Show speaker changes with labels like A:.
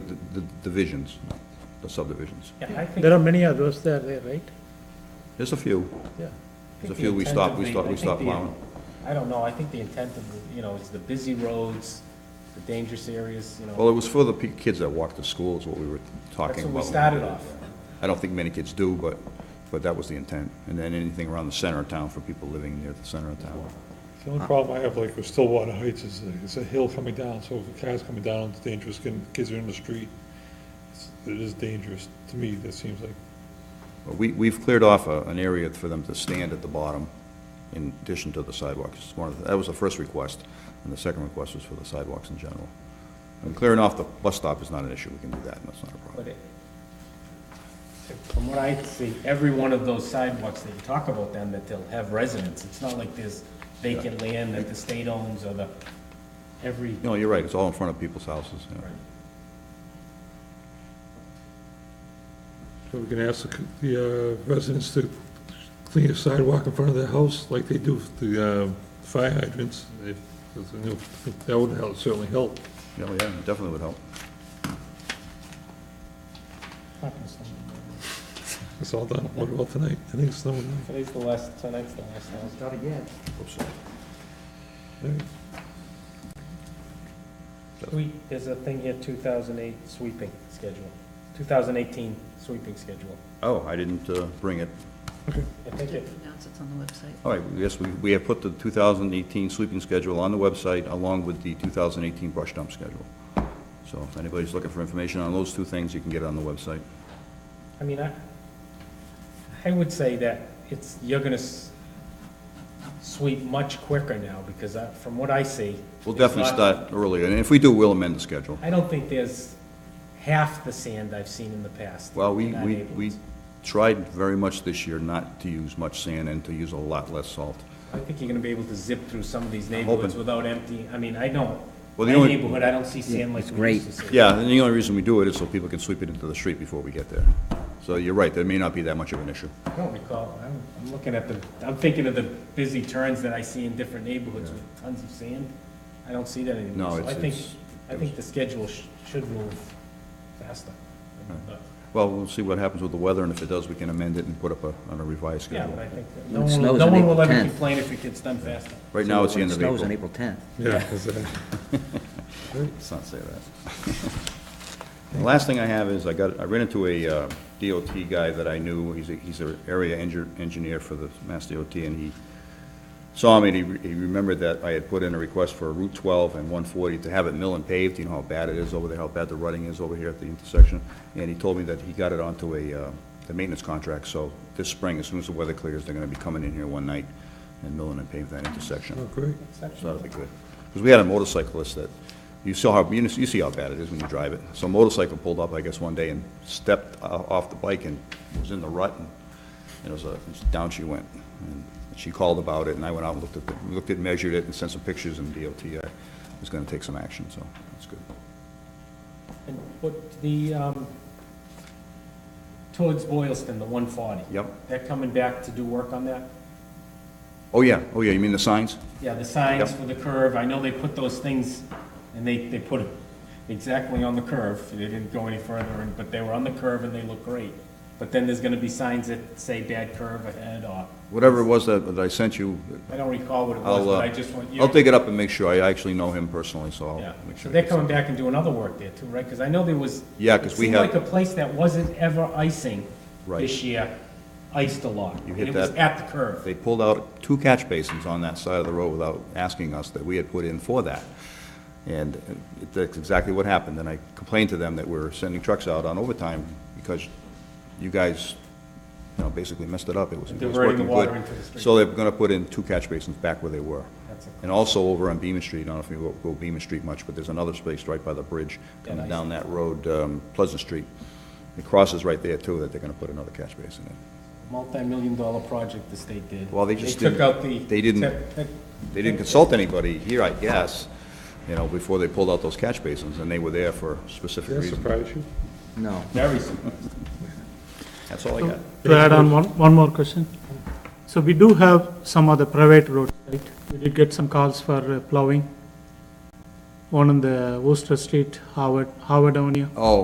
A: the divisions, the subdivisions.
B: Yeah, I think.
C: There are many others that are there, right?
A: There's a few,
C: Yeah.
A: there's a
B: think
A: few
B: the
A: we
B: intent
A: stop,
B: of
A: we
B: the-
A: stop,
B: I
A: we
B: think
A: stop
B: the-
A: plowing.
B: I don't know, I think the intent of, the you know, is the busy roads, the dangerous areas, you
A: Well,
B: know,
A: it was for the pe- kids that walk to school is what we were talking
B: that's
A: about.
B: what we started off.
A: I don't think many kids do, but, but that was the intent. And then anything around the center of town for people living near the center of town.
D: The only problem I have, like, with Stillwater Heights is, uh, it's a hill coming down, so if a car's coming down, it's dangerous, can- kids are in the street. It's- It is dangerous, to me, that seems like,
A: But We, we've cleared off a- an area for them to stand at the bottom in addition to the sidewalks. It's one of the- That was the first request, and the second request was for the sidewalks in general. And clearing off the bus stop is not an issue, we can do that, and that's not a problem.
B: But it, from what I see, every one of those sidewalks that you talk about then, that they'll have residents. It's not like there's vacant land that the state owns or the, every,
A: No, you're right, it's all in front of people's houses, yeah.
D: so we can ask the c- the uh, residents to clean a sidewalk in front of their house, like they do with the uh, fire hydrants. If- if, you know, That would help, certainly help.
A: Yeah, well, yeah, it definitely would help.
D: It's all done. What about tonight? I think it's done.
B: today's the last, tonight's the last. Not again.
A: Oops.
B: We, there's a thing here, two thousand eight sweeping schedule, two thousand eighteen sweeping schedule.
A: Oh, I didn't uh, bring it.
B: I think it,
E: Announce it's on the website.
A: All right, yes, we, we have put the 2018 sweeping schedule on the website along with the 2018 brush dump schedule. So if anybody's looking for information on those two things, you can get it on the website.
B: I mean, I, I would say that it's, you're gonna s- sweep much quicker now, because I, from what I see.
A: We'll
B: it's
A: definitely
B: not-
A: start earlier, and if we do, we'll amend the schedule.
B: I don't think there's half the sand I've seen in the past.
A: Well, we,
B: in our
A: we, we
B: neighborhoods.
A: tried very much this year not to use much sand and to use a lot less salt.
B: I think you're gonna be able to zip through some of these neighborhoods
A: hoping.
B: without emptying, I mean, I know,
A: Well, the
B: my
A: only-
B: neighborhood, I don't see sand like we used to see.
A: Yeah, and the only reason we do it is so people can sweep it into the street before we get there. So you're right, there may not be that much of an issue.
B: I don't recall, I'm, I'm looking at the, I'm thinking of the busy turns that I see in different neighborhoods with tons of sand. I don't see that anymore.
A: No,
B: So
A: it's-
B: I think,
A: it's-
B: I think the schedule sh- should move faster. But,
A: Well, we'll see what happens with the weather, and if it does, we can amend it and put up a, on a revised
B: Yeah,
A: schedule.
B: but I think, that no one,
E: It
B: will-
E: snows
B: no
E: on
B: one will
E: April
B: ever
E: 10th.
B: complain if it gets done faster.
A: Right now, it's the end of
E: Snows on
A: April.
E: April 10th.
D: Yeah, is that,
A: Let's not say that. The last thing I have is, I got, I ran into a uh, DOT guy that I knew, he's a, he's an area engi- engineer for the Mass DOT, and he saw me, and he, re- he remembered that I had put in a request for Route 12 and 140 to have it mill and paved, you know how bad it is over there, how bad the rutting is over here at the intersection, and he told me that he got it onto a, uh, the maintenance contract, so this spring, as soon as the weather clears, they're gonna be coming in here one night and milling and paving that intersection.
D: oh, great.
A: So that'd be good. Because we had a motorcyclist that, you saw how, you you see how bad it is when you drive it. So a motorcycle pulled up, I guess, one day and stepped o- off the bike and was in the rut, and it was a, down she went. And she called about it, and I went out and looked at, the- looked at, measured it, and sent some pictures, and DOT uh, was gonna take some action, so that's good.
B: And what, the, um, towards Boylston, the one forty.
A: Yep.
B: They're coming back to do work on that?
A: Oh, yeah, oh, yeah, you mean the signs?
B: Yeah, the signs
A: Yep.
B: for the curve, I know they put those things, and they, they put it exactly on the curve, they didn't go any further, and- but they were on the curve and they look great. But then there's gonna be signs that say bad curve ahead, or,
A: Whatever it was that, that I sent you,
B: I don't recall what it was,
A: I'll, uh,
B: but I just want you.
A: I'll dig it up and make sure, I actually know him personally, so
B: Yeah,
A: I'll make
B: so
A: sure.
B: they're coming back and doing other work there too, right? Because I know there was.
A: Yeah, 'cause we
B: It
A: have-
B: seemed like a place that wasn't ever icing
A: Right.
B: this year, iced a lot.
A: You
B: and
A: hit
B: It was
A: that-
B: at the curve.
A: They pulled out two catch basins on that side of the road without asking us that we had put in for that. And it- that's exactly what happened. And I complained to them that we're sending trucks out on overtime because you guys, you know, basically messed it up. It was it was
B: Diverting the
A: working
B: water
A: good.
B: into the street.
A: So they're going to put in two catch basins back where they were.
B: That's a-
A: And also over on Beaman Street, I don't know if you go- go Beaman Street much, but there's another space right by the bridge coming
B: I
A: down that road, um, Pleasant Street. It crosses right there too, that they're going to put another catch basin in.
B: Multi-million dollar project the state did.
A: Well, they just
B: took
A: didn't-
B: out the.
A: they didn't-
B: tech- tech-
A: They didn't consult anybody here, I guess, you know, before they pulled out those catch basins, and they were there for specific
D: Did that
A: reasons.
D: surprise you?
E: No.
B: Very simple.
A: That's all I got.
C: To add on one, one more question. So we do have some other private roads, right? We did get some calls for uh, plowing. One on the Worcester Street, Howard, Howard Avenue.
A: Oh,